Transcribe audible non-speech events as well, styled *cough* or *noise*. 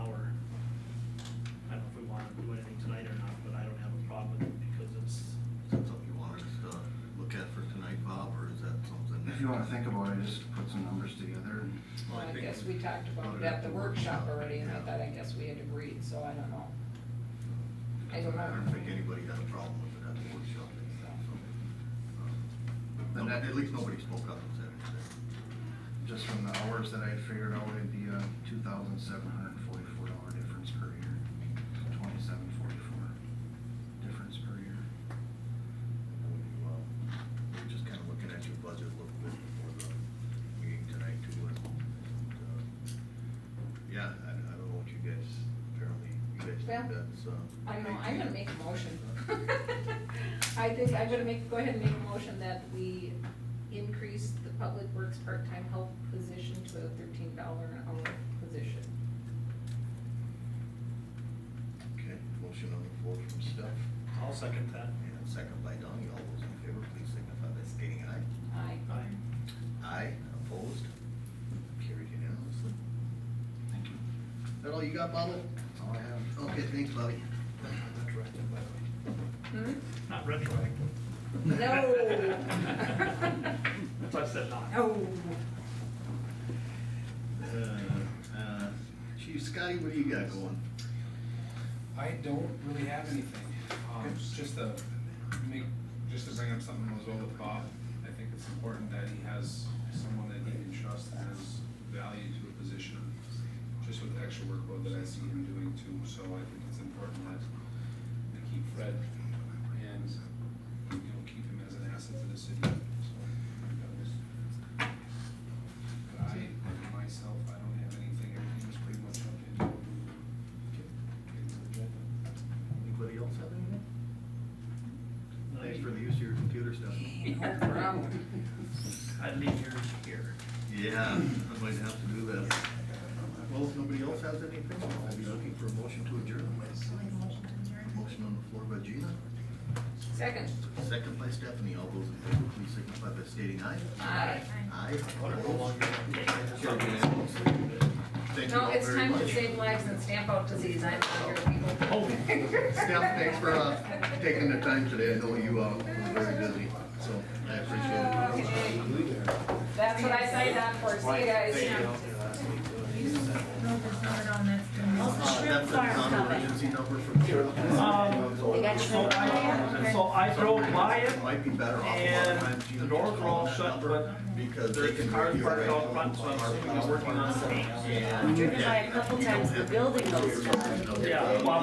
you wanna think about it, just put some numbers together. and- Well, I I think- guess we talked about it at the workshop already, and I thought, I guess we had agreed, so I don't know. I don't know. I don't think anybody had a problem with it at the workshop, and stuff, so. um, And no- that- At least nobody spoke up and said anything. Just from the hours that I figured out, it'd be a two thousand seven hundred and forty-four dollar difference per year. Twenty-seven forty-four difference per year. When you, um, We're just kind of looking at your budget a little bit before the meeting tonight too. and, uh, Yeah, I, I don't know what you guys, apparently, you guys Well, think that's, uh. I don't know, I'm gonna make a *laughs* motion. Uh, I think I'm gonna make, go ahead and make a motion that we increase the public works part-time help position to a thirteen dollar an hour position. Okay, motion on the floor from Steph, I'll second that. and second by Donnie, all those in favor, please signify by stating aye. Aye. Aye. Aye, opposed, carried unanimously. Thank you. Is that all you got, Bobby? That's all I have. Okay, thanks, Bobby. Hmm? Not retroactive. No. *laughs* That's why I said not. Oh. Uh, uh, Chief Scotty, what do you got going? I don't really have anything, um, Okay. just to make, just to bring up something that was well with Bob, I think it's important that he has someone that he can trust that has value to a position, just with the extra workload that I see him doing too, so I think it's important that we keep Fred and, you know, keep him as an asset to the city, so. that was- But I, myself, I don't have anything, everything was pretty much up in. Anybody else have anything? Thanks for the use of your computer stuff. No problem. I'd leave yours here. Yeah, I might have to do that. Well, if nobody else has anything, I'll be looking for a motion to adjourn. Motion on the floor by Gina, Second. second by Stephanie. All those in favor, please signify by stating aye. Aye. Aye. Thank you No, all it's very time to much. save lives and stamp out disease, I'm here, people. Oh, Steph, thanks for, uh, taking the time today. I know you, uh, were very busy, so I appreciate it. Okay. That's what I signed up for, see you guys. No, there's not on that. Uh, That's a non-emergency number from here. Um, so I, so I drove by it, Might be better off. a lot of times and you the doors were all call shut, that but number Because they there's can. cars hear you parked right out now. front, so I'm assuming they're working on it. Yeah. Driven by a couple times, the building was flooded. Yeah, well,